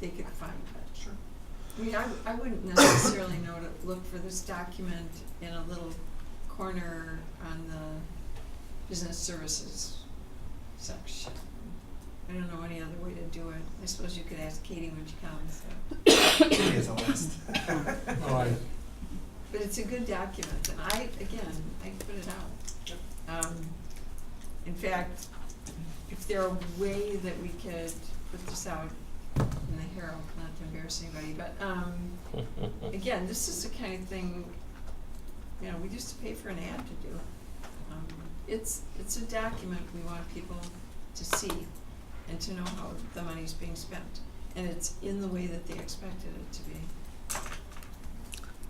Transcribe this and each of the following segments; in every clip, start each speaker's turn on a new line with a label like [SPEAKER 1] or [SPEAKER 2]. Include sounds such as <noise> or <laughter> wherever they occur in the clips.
[SPEAKER 1] they could find that, sure. I mean, I, I wouldn't necessarily know to look for this document in a little corner on the business services section. I don't know any other way to do it. I suppose you could ask Katie when she comes, so.
[SPEAKER 2] Katie has a list.
[SPEAKER 3] Oh, I,
[SPEAKER 1] But it's a good document, and I, again, I put it out. Um, in fact, if there a way that we could put this out in the Herald, not to embarrass anybody, but,
[SPEAKER 4] <laughs>
[SPEAKER 1] um, again, this is the kind of thing, you know, we used to pay for an ad to do. Um, It's, it's a document we want people to see and to know how the money's being spent, and it's in the way that they expected it to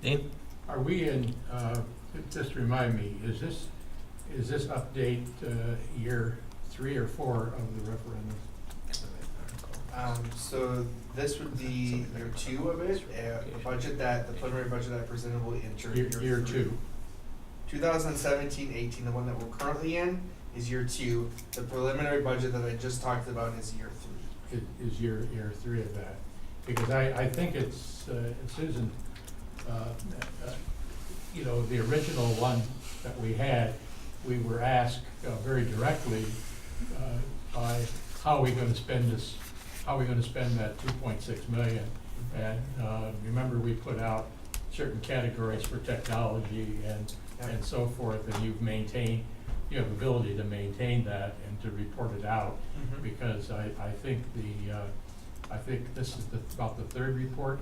[SPEAKER 1] be.
[SPEAKER 4] Dean?
[SPEAKER 3] are we in, uh, just remind me, is this, is this update, uh, year three or four of the referendum?
[SPEAKER 2] Um, so this would be year two of it, uh, the budget that, the preliminary budget that I presented will enter year
[SPEAKER 3] Year,
[SPEAKER 2] three.
[SPEAKER 3] year two,
[SPEAKER 2] 2017 18, the one that we're currently in, is year two. The preliminary budget that I just talked about is year three.
[SPEAKER 3] is, is year, year three of that. Because I, I think it's, uh, it's isn't, uh, uh, you know, the original one that we had, we were asked uh, very directly, uh, by, how are we gonna spend this, how are we gonna spend that two point six million? And uh, remember, we put out certain categories for technology and, and so forth, and you've maintained, you have ability to maintain that and to report it out,
[SPEAKER 2] Mhm.
[SPEAKER 3] because I, I think the, uh, I think this is the, about the third report.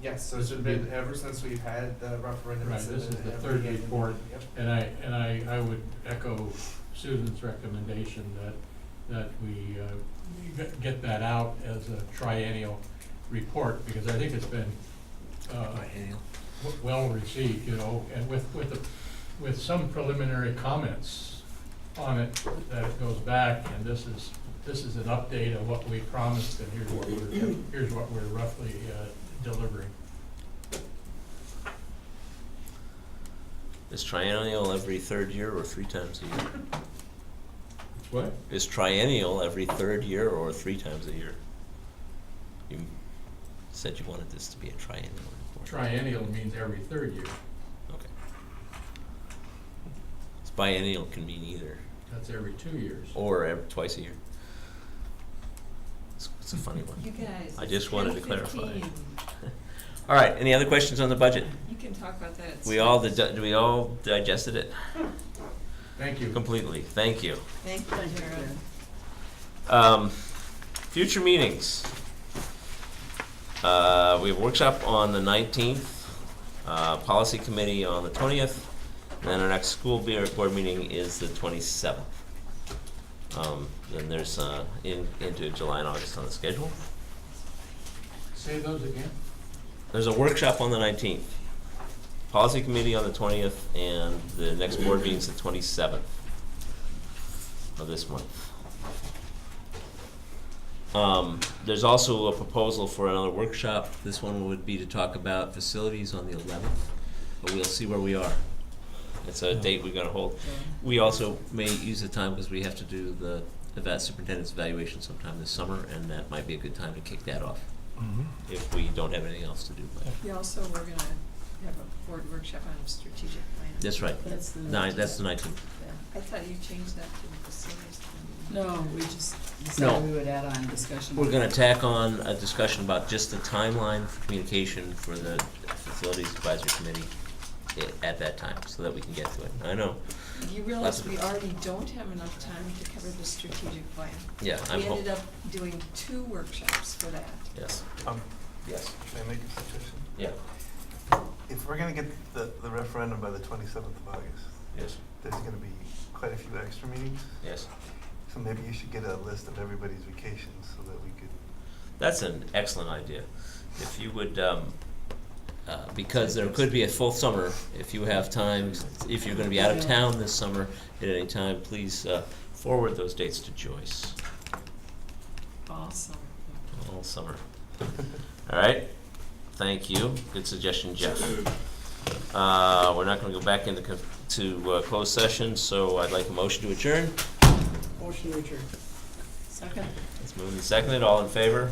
[SPEAKER 2] Yes, so
[SPEAKER 3] This
[SPEAKER 2] it's
[SPEAKER 3] would
[SPEAKER 2] been
[SPEAKER 3] be-
[SPEAKER 2] ever since we've had the referendum.
[SPEAKER 3] Right,
[SPEAKER 2] it's
[SPEAKER 3] this
[SPEAKER 2] been
[SPEAKER 3] is the
[SPEAKER 2] every
[SPEAKER 3] third
[SPEAKER 2] year.
[SPEAKER 3] report.
[SPEAKER 2] Yep.
[SPEAKER 3] And I, and I, I would echo Susan's recommendation that, that we, uh, we get- get that out as a triennial report, because I think it's been, uh, w- well received, you know, and with, with, the- with some preliminary comments on it, that it goes back, and this is, this is an update of what we promised, and here's what we're, here's what we're roughly uh, delivering.
[SPEAKER 4] Is triennial every third year or three times a year?
[SPEAKER 3] What?
[SPEAKER 4] Is triennial every third year or three times a year? You said you wanted this to be a triennial report.
[SPEAKER 3] Triennial means every third year,
[SPEAKER 4] Okay. 'Cause Biennial can mean either,
[SPEAKER 3] that's every two years.
[SPEAKER 4] or ev- twice a year. It's, it's a funny
[SPEAKER 1] You
[SPEAKER 4] one.
[SPEAKER 1] guys.
[SPEAKER 4] I
[SPEAKER 1] it's
[SPEAKER 4] just wanted to
[SPEAKER 1] 10:15.
[SPEAKER 4] clarify. All right, any other questions on the budget?
[SPEAKER 1] You can talk about that. at
[SPEAKER 4] We
[SPEAKER 1] some-
[SPEAKER 4] all, did we all digested it
[SPEAKER 3] Thank you.
[SPEAKER 4] completely, thank you.
[SPEAKER 1] Thank you, Jared.
[SPEAKER 4] Um, future meetings. Uh, we have workshop on the nineteenth, uh, policy committee on the twentieth, and then our next school be- board meeting is the twenty-seventh. Um, then there's, uh, in, into July and August on the schedule.
[SPEAKER 3] Say those again.
[SPEAKER 4] There's a workshop on the nineteenth, policy committee on the twentieth, and the next board meeting's the twenty-seventh of this month. Um, there's also a proposal for another workshop. This one would be to talk about facilities on the eleventh, but we'll see where we are. It's a date we're gonna hold. We also may use the time because we have to do the eva- superintendent's evaluation sometime this summer, and that might be a good time to kick that off if we don't have anything else to do. but-
[SPEAKER 1] We also, we're gonna have a board workshop on strategic plan.
[SPEAKER 4] That's right.
[SPEAKER 5] That's the
[SPEAKER 4] Nine, that's the nineteenth.
[SPEAKER 1] I thought you changed that to the facilities. plan.
[SPEAKER 5] No, we just
[SPEAKER 4] No.
[SPEAKER 5] decided we would add on discussion.
[SPEAKER 4] We're gonna tack on a discussion about just the timeline for communication for the Facilities Advisory Committee i- at that time, so that we can get to it. I know,
[SPEAKER 1] You
[SPEAKER 4] Lots
[SPEAKER 1] realize
[SPEAKER 4] of-
[SPEAKER 1] we already don't have enough time to cover the strategic plan.
[SPEAKER 4] yeah, I'm
[SPEAKER 1] We
[SPEAKER 4] hoping,
[SPEAKER 1] ended up doing two workshops for that.
[SPEAKER 4] yes,
[SPEAKER 6] Um,
[SPEAKER 4] yes,
[SPEAKER 6] Can I make a suggestion?
[SPEAKER 4] yeah,
[SPEAKER 6] If we're gonna get the, the referendum by the twenty-seventh of August,
[SPEAKER 4] yes,
[SPEAKER 6] there's gonna be quite a few extra meetings,
[SPEAKER 4] yes.
[SPEAKER 6] so maybe you should get a list of everybody's vacations so that we could.
[SPEAKER 4] That's an excellent idea. If you would, um, uh, because there could be a full summer, if you have time, if you're gonna be out of town this summer at any time, please, uh, forward those dates to Joyce.
[SPEAKER 1] Awesome.
[SPEAKER 4] all summer. All right, thank you. Good suggestion, Jeff. Uh, we're not gonna go back into, co- to, uh, closed session, so I'd like a motion to adjourn.
[SPEAKER 5] Motion to adjourn. Second.
[SPEAKER 4] It's moved and seconded, all in favor?